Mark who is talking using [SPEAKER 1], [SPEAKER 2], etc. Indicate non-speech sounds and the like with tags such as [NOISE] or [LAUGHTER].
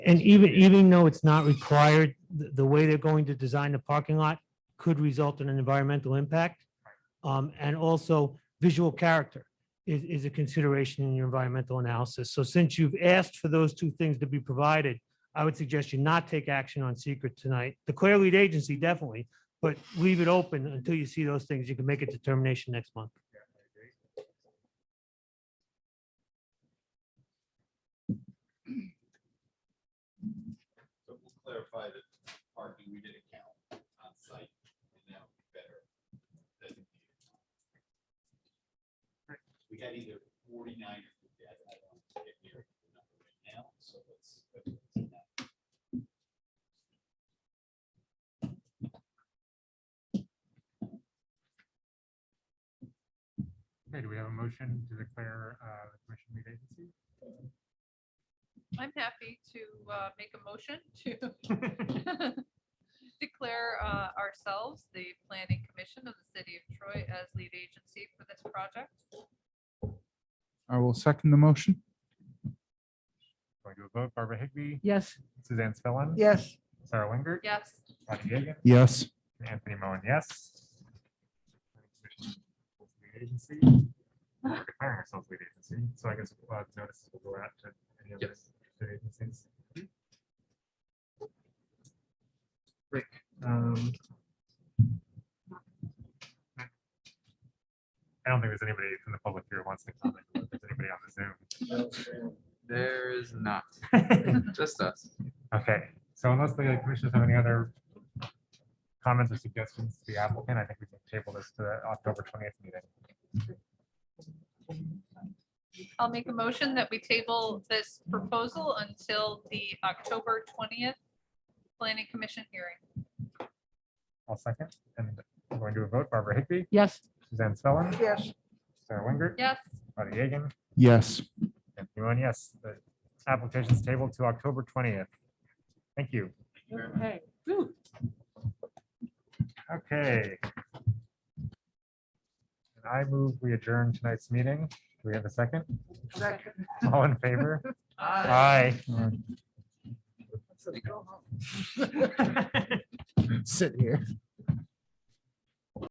[SPEAKER 1] And even, even though it's not required, the, the way they're going to design the parking lot could result in an environmental impact. Um, and also visual character is, is a consideration in your environmental analysis. So since you've asked for those two things to be provided, I would suggest you not take action on secret tonight. The clear lead agency definitely, but leave it open until you see those things. You can make a determination next month.
[SPEAKER 2] So we'll clarify that parking we did account on site and now better. designated. We had either forty-nine or fifty, I I don't get near the number right now, so let's. let's-
[SPEAKER 3] Okay, do we have a motion to declare uh, the commission lead agency?
[SPEAKER 4] I'm happy to uh, make a motion to declare uh, ourselves the planning commission of the city of Troy as lead agency for this project.
[SPEAKER 3] I will second the motion. Going to a vote, Barbara Higbee,
[SPEAKER 1] Yes.
[SPEAKER 3] Suzanne Spellin.
[SPEAKER 5] Yes,
[SPEAKER 3] Sarah Winger.
[SPEAKER 4] Yes,
[SPEAKER 3] Bonnie Yeagan,
[SPEAKER 6] Yes.
[SPEAKER 3] and Anthony Mowen, yes. Lead agency. We're Declaring ourselves lead agency, so I guess uh, notices will go out to any other state agencies. Great. um, I don't think there's anybody from the public here who wants to comment. If there's anybody on the Zoom.
[SPEAKER 7] There is
[SPEAKER 3] [LAUGHS]
[SPEAKER 7] not, just us.
[SPEAKER 3] Okay, so unless the commissioners have any other comments or suggestions to the applicant, I think we can table this to the October twentieth meeting.
[SPEAKER 4] I'll make a motion that we table this proposal until the October 20th planning commission hearing.
[SPEAKER 3] I'll second, and we're going to a vote. Barbara Higbee,
[SPEAKER 1] Yes.
[SPEAKER 3] Suzanne Spellin,
[SPEAKER 5] yes,
[SPEAKER 3] Sarah Winger,
[SPEAKER 4] Yes,
[SPEAKER 3] Buddy Yeagan,
[SPEAKER 6] Yes.
[SPEAKER 3] and everyone, yes, the application's tabled to October twentieth. Thank you. Okay. And I move we adjourn tonight's meeting. Do we have a second?
[SPEAKER 5] second.
[SPEAKER 3] All
[SPEAKER 5] [LAUGHS]
[SPEAKER 3] in favor? Aye.
[SPEAKER 6] Sit here.